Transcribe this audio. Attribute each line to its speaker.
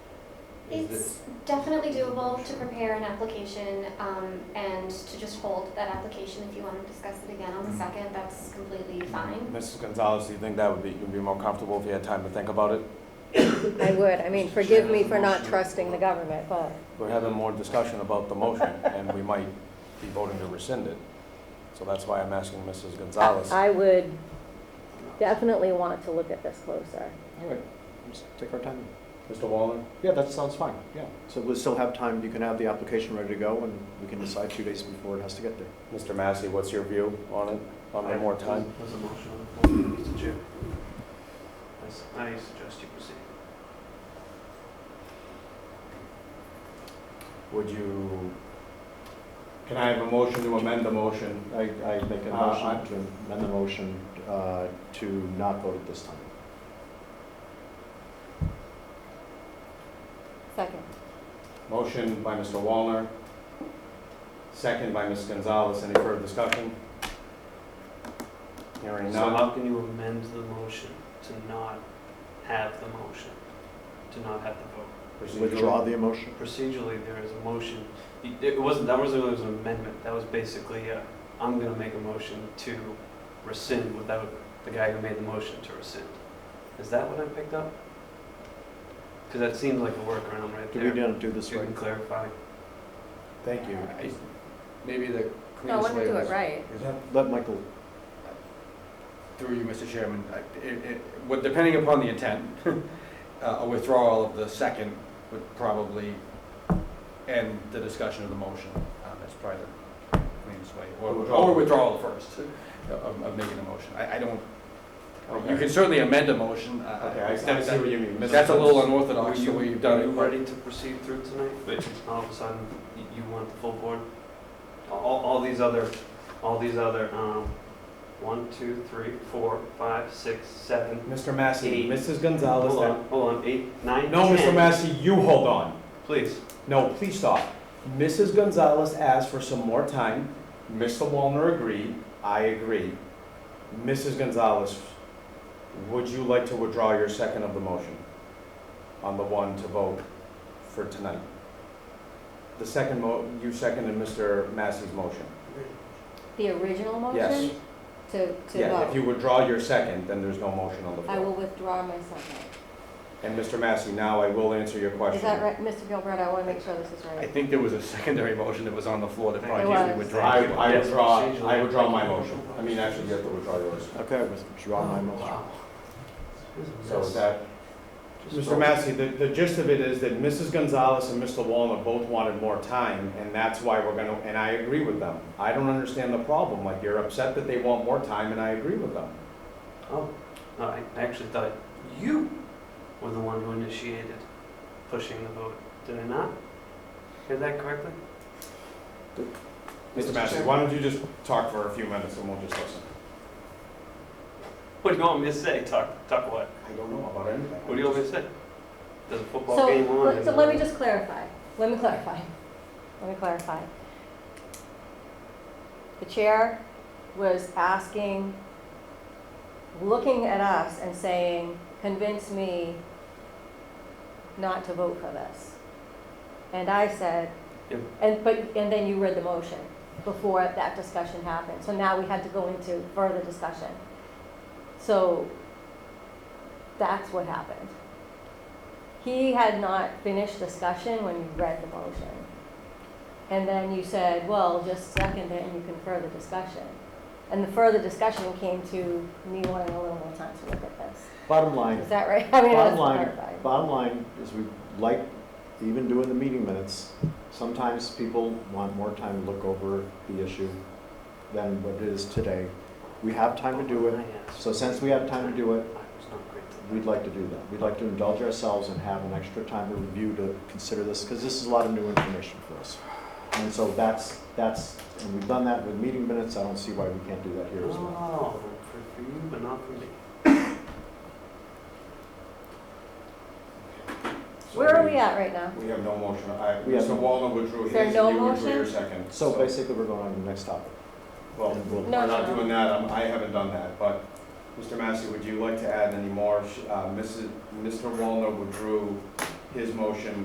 Speaker 1: Is
Speaker 2: It's
Speaker 1: this-
Speaker 2: definitely doable to prepare an application um, and to just hold that application if you want to discuss it again on the
Speaker 3: Mm-hmm.
Speaker 1: Mhm.
Speaker 2: second, that's completely fine.
Speaker 4: Mrs. Gonzalez, do you think that would be, you'd be more comfortable if you had time to think about it?
Speaker 5: I would, I mean, forgive me for not trusting the government, but
Speaker 4: We're having more discussion about the motion, and we might be voting to rescind it. So that's why I'm asking Mrs. Gonzalez.
Speaker 5: I would definitely want to look at this closer.
Speaker 6: All right, let's take our time.
Speaker 4: Mr. Wallner?
Speaker 6: Yeah, that sounds fine, yeah. So we'll still have time, you can have the application ready to go, and we can decide two days before it has to get there.
Speaker 4: Mr. Massey, what's your view on it, on the more time?
Speaker 1: There's a motion on the floor, Mr. Chair. I s- I suggest you proceed.
Speaker 4: Would you, can I have a motion to amend the motion?
Speaker 6: I, I make a
Speaker 4: Uh,
Speaker 6: motion
Speaker 4: I-
Speaker 6: to amend the motion uh, to not vote at this time.
Speaker 5: Second.
Speaker 4: Motion by Mr. Wallner, second by Ms. Gonzalez. Any further discussion? Hearing
Speaker 1: So
Speaker 4: none.
Speaker 1: how can you amend the motion to not have the motion, to not have the vote?
Speaker 6: Withdraw the motion.
Speaker 1: Procedurally, there is a motion, y- it wasn't, that wasn't, it was an amendment, that was basically, uh, I'm gonna make a motion to rescind without the guy who made the motion to rescind. Is that what I picked up? Because that seems like a workaround right
Speaker 6: Did we
Speaker 1: there.
Speaker 6: not do this
Speaker 1: If you
Speaker 6: right?
Speaker 1: can clarify.
Speaker 4: Thank you.
Speaker 3: Maybe the
Speaker 5: No, I
Speaker 3: cleanest
Speaker 5: want to
Speaker 3: way
Speaker 5: do it
Speaker 3: was,
Speaker 5: right.
Speaker 6: Let Michael,
Speaker 3: through you, Mr. Chairman, I- it- it- well, depending upon the intent, uh, a withdrawal of the second would probably end the discussion of the motion. Um, That's probably the cleanest way. Or-
Speaker 4: Or withdrawal.
Speaker 3: Or withdrawal first uh, of of making a motion. I I don't, you
Speaker 4: Okay,
Speaker 3: can certainly amend a motion. uh, I- I-
Speaker 4: Okay, I I
Speaker 3: that-
Speaker 4: see what you mean. Mrs.
Speaker 3: That's a little
Speaker 1: Are
Speaker 3: unorthodox, the
Speaker 1: you,
Speaker 3: way you've done
Speaker 1: are you
Speaker 3: it. but-
Speaker 1: ready to proceed through tonight? But all of a sudden, you, you want the full board? All, all these other, all these other, um, one, two, three, four, five, six, seven.
Speaker 4: Mr. Massey,
Speaker 1: Eight.
Speaker 4: Mrs.
Speaker 1: Hold
Speaker 4: Gonzalez.
Speaker 1: on, hold on, eight, nine, ten.
Speaker 4: No, Mr. Massey, you hold on.
Speaker 1: Please,
Speaker 4: No, please stop. Mrs. Gonzalez asked for some more time. Mr. Wallner agreed. I agree. Mrs. Gonzalez, would you like to withdraw your second of the motion on the one to vote for tonight? The second mo, you seconded Mr. Massey's motion.
Speaker 5: The original
Speaker 4: Yes.
Speaker 5: motion to, to
Speaker 4: Yeah, if you
Speaker 5: vote.
Speaker 4: withdraw your second, then there's no motion on the
Speaker 5: I will
Speaker 4: floor.
Speaker 5: withdraw my second.
Speaker 4: And Mr. Massey, now I will answer your question.
Speaker 5: Is that right, Mr. Gilberto? I want to make sure this is
Speaker 3: I
Speaker 5: right.
Speaker 3: think there was a secondary motion that was on the floor that probably
Speaker 5: There
Speaker 3: needed
Speaker 5: was.
Speaker 4: I,
Speaker 3: withdrawing.
Speaker 4: I
Speaker 1: Yes,
Speaker 4: withdraw,
Speaker 1: procedurally.
Speaker 4: I withdraw my motion. I mean, actually, you have to withdraw yours.
Speaker 6: okay, withdraw my motion.
Speaker 1: Oh, wow. This is a
Speaker 4: So
Speaker 1: mess.
Speaker 4: is that,
Speaker 1: Just
Speaker 4: Mr.
Speaker 1: vote.
Speaker 4: Massey, the, the gist of it is that Mrs. Gonzalez and Mr. Wallner both wanted more time, and that's why we're gonna, and I agree with them. I don't understand the problem, like, you're upset that they want more time, and I agree with them.
Speaker 1: Oh, no, I I actually thought you were the one who initiated pushing the vote. Did I not? Hear that correctly?
Speaker 4: Mr. Massey, why don't you just talk for a few minutes and we'll just listen?
Speaker 1: What do you want me to say? Talk, talk what?
Speaker 4: I don't know about anything.
Speaker 1: What do you want me to say? There's a football
Speaker 5: So,
Speaker 1: game on.
Speaker 5: let-
Speaker 1: and,
Speaker 5: so let me
Speaker 1: uh,
Speaker 5: just clarify. Let me clarify. Let me clarify. The chair was asking, looking at us and saying, convince me not to vote for this. And I said,
Speaker 1: Yep.
Speaker 5: and, but, and then you read the motion before that discussion happened. So now we had to go into further discussion. So that's what happened. He had not finished discussion when you read the motion. And then you said, well, just second it and you can further discussion. And the further discussion came to me wanting a little more time to look at this.
Speaker 6: Bottom line,
Speaker 5: Is that right? I mean, that's
Speaker 6: Bottom line-
Speaker 5: clarified.
Speaker 6: Bottom line is we like, even doing the meeting minutes, sometimes people want more time to look over the issue than what it is today. We have time to do it, so since we have time to do
Speaker 1: I
Speaker 6: it,
Speaker 1: was not great today.
Speaker 6: we'd like to do that. We'd like to indulge ourselves and have an extra time to review to consider this, because this is a lot of new information for us. And so that's, that's, and we've done that with meeting minutes, I don't see why we can't do that here as well.
Speaker 1: Oh, for, for you, but not for me.
Speaker 4: So
Speaker 5: Where are we at right now?
Speaker 4: We have no motion. I,
Speaker 6: We have
Speaker 4: Mr. Wallner withdrew
Speaker 5: Is there
Speaker 4: his,
Speaker 5: no
Speaker 4: you withdrew
Speaker 5: motion?
Speaker 4: your second.
Speaker 6: So basically, we're going on to the next topic.
Speaker 4: Oh. Well,
Speaker 6: And we'll-
Speaker 4: we're
Speaker 5: No,
Speaker 4: not
Speaker 5: no, no.
Speaker 4: doing that, I'm- I haven't done that, but, Mr. Massey, would you like to add any more? Sh- uh, Mrs., Mr. Wallner withdrew his motion